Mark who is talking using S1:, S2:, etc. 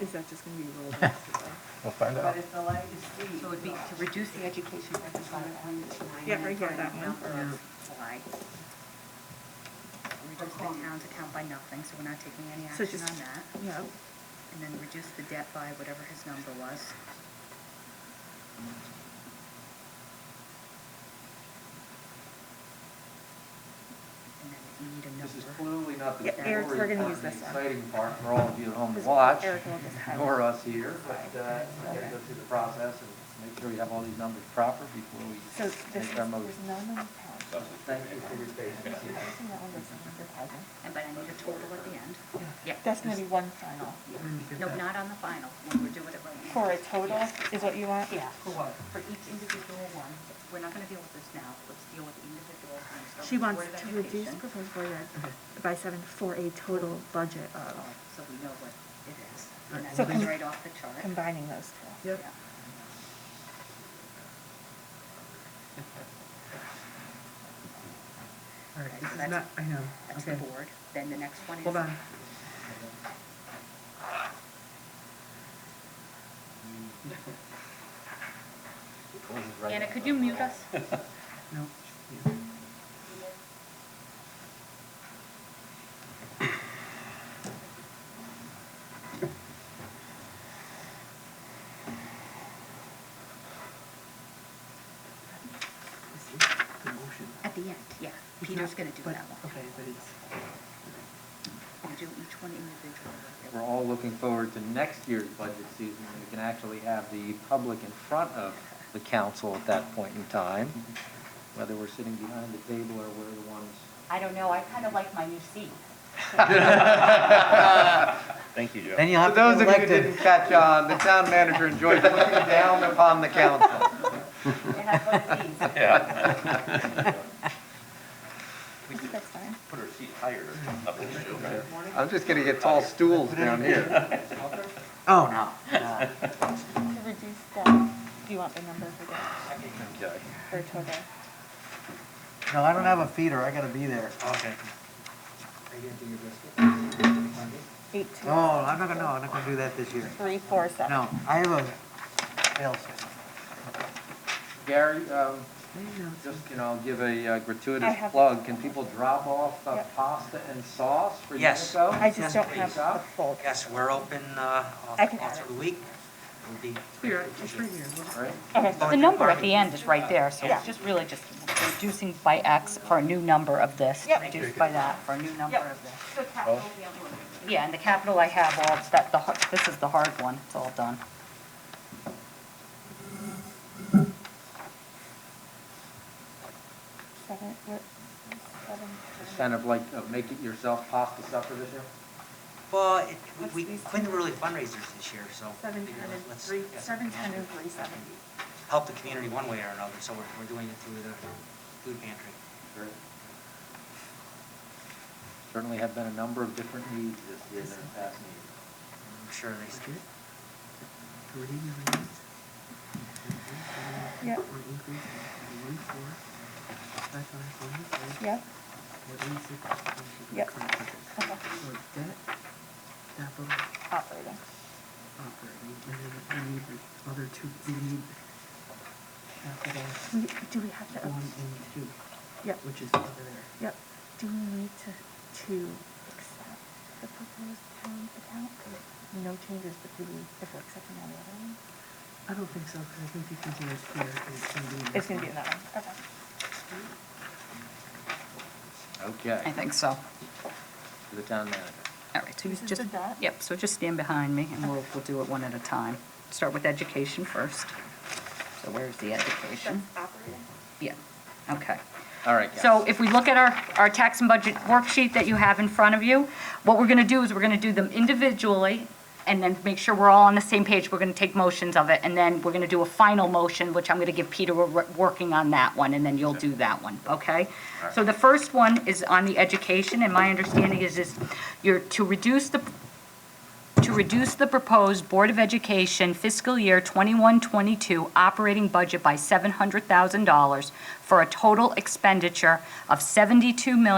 S1: Is that just gonna be rolled after that?
S2: We'll find out.
S3: But if the light is green.
S4: So it'd be to reduce the education deficit on the line.
S1: Yeah, right here, that one.
S4: July. Reduce the town's account by nothing, so we're not taking any
S1: Um, So
S4: action
S1: just,
S4: on that.
S1: yeah,
S4: And then reduce the debt by whatever his number was. And then we need a
S5: This is
S4: number.
S5: clearly not the
S1: Yeah,
S5: story
S1: Eric's- we're gonna
S5: part,
S1: use
S5: the
S1: this one.
S5: exciting part for all of you at home to watch,
S1: Eric will just highlight.
S5: nor us here, but uh, we gotta go through the process and make sure we have all these numbers proper before
S1: so
S5: we
S1: this is,
S5: make our
S1: there's none
S5: motion.
S1: in the town.
S5: Thank you for your patience.
S1: I've seen that one, that's a hundred thousand.
S4: And but I need a total at the end. Yeah.
S1: That's gonna be one final.
S4: Nope, not on the final, when we're doing it right now.
S1: For a total is what you want?
S4: Yeah, for what? For each individual one. We're not gonna deal with this now, let's deal with the individual ones. Start
S1: She
S4: with
S1: wants
S4: Board of
S1: to reduce
S4: Education.
S1: proposed Board Ed by seven for a total budget
S4: Oh,
S1: of,
S4: So we know what it is, and
S1: So
S4: then it's
S1: com-
S4: right off the chart.
S1: combining those two.
S4: Yeah.
S6: All right,
S4: Okay, so
S6: this is
S4: that's-
S6: not, I know,
S4: That's the
S6: okay.
S4: board, then the next one is.
S6: Hold on.
S4: Anna, could you mute us?
S6: No. This is the motion.
S4: At the end, yeah,
S6: It's
S4: Peter's
S6: not-
S4: gonna do
S6: but-
S4: that one.
S6: Okay, but it's,
S4: We'll do each one individually.
S5: We're all looking forward to next year's budget season, when we can actually have the public in front of the council at that point in time, whether we're sitting behind the table or we're the ones.
S4: I don't know, I kinda like my new seat.
S2: Thank you, Joe.
S5: And you'll have those of you who didn't catch on, the town manager enjoys looking down upon the council.
S4: And I voted these.
S1: I think that's fine.
S2: Put her seat higher up in the show.
S5: I'm just gonna get tall stools down here.
S6: oh, no. no.
S1: To reduce debt, do you want the number for debt,
S2: Okay.
S1: for total?
S5: No, I don't have a feeder, I gotta be there.
S6: Okay.
S1: Eight two
S6: No, Oh, I'm not gonna, no, I'm not gonna do that this year.
S1: three four seven.
S6: No, I have a fail safe.
S5: Gary, um,
S6: I know.
S5: just, you know, give a uh,
S1: I
S5: gratuitous
S1: have-
S5: plug, can people drop off uh,
S1: Yep.
S5: pasta and sauce for
S7: Yes.
S5: Unico?
S1: I just don't
S5: Please,
S1: have
S5: uh,
S1: the full.
S7: Yes, we're open uh, all
S1: I can
S7: all
S1: add
S7: through the week. We'll be
S6: Here,
S7: grateful to
S6: it's
S7: you.
S6: right here.
S5: Right?
S8: Okay,
S7: Going
S8: the
S7: to
S8: number at
S7: barbecue.
S8: the end is right there, so it's just really just reducing by X for a new number of this,
S1: Yep.
S8: reduced by that for a new number
S4: Yep.
S8: of this.
S4: So capital, the other one.
S8: Yeah, and the capital I have all, that, the, har- this is the hard one, it's all done.
S1: Seven, what, seven?
S5: It's kind of like uh, make it yourself pasta supper this year?
S7: Well, it- we-
S1: What's
S7: we
S1: these
S7: couldn't really fundraisers this year, so.
S1: Seven
S7: you know,
S1: ten and
S7: let's-
S1: three,
S7: yes,
S1: seven
S7: we can
S1: ten and three seventy.
S7: Help the community one way or another, so we're, we're doing it through the food pantry.
S5: Sure. Certainly have been a number of different needs this year than in past years.
S7: I'm sure they,
S6: Budget, Forty million.
S1: Yep.
S6: Or increase of one four, five five one, eight,
S1: Yep,
S6: or eight six, one six,
S1: Yep.
S6: five, six.
S1: okay,
S6: So debt, capital,
S1: operating.
S6: operating, and then we need the other two, we need capital
S1: We- Do we have to,
S6: one and two,
S1: yep,
S6: which is over there.
S1: yep. Do we need to, to accept the proposed town account? No changes, but do we, if we're accepting on the other one?
S6: I don't think so, because I think you can do it here, and it's gonna be. in this
S1: It's gonna be in
S6: one.
S1: that one, okay.
S8: I
S5: Okay,
S8: think so.
S5: to the town manager.
S8: All right, so you
S1: This is
S8: just,
S1: the dot?
S8: yep, so just stand behind me and we'll, we'll do it one at a time. Start with education first. So where's the education?
S1: Operating.
S8: Yeah, okay.
S5: All right, guys.
S8: So if we look at our, our tax and budget worksheet that you have in front of you, what we're gonna do is we're gonna do them individually and then make sure we're all on the same page. We're gonna take motions of it and then we're gonna do a final motion, which I'm gonna give Peter, we're wor- working on that one and then you'll do that one, okay? So the first one is on the education and my understanding is is you're to reduce the to reduce the proposed Board of Education fiscal year 21-22 operating budget by $700,000 for a total expenditure of $72 million.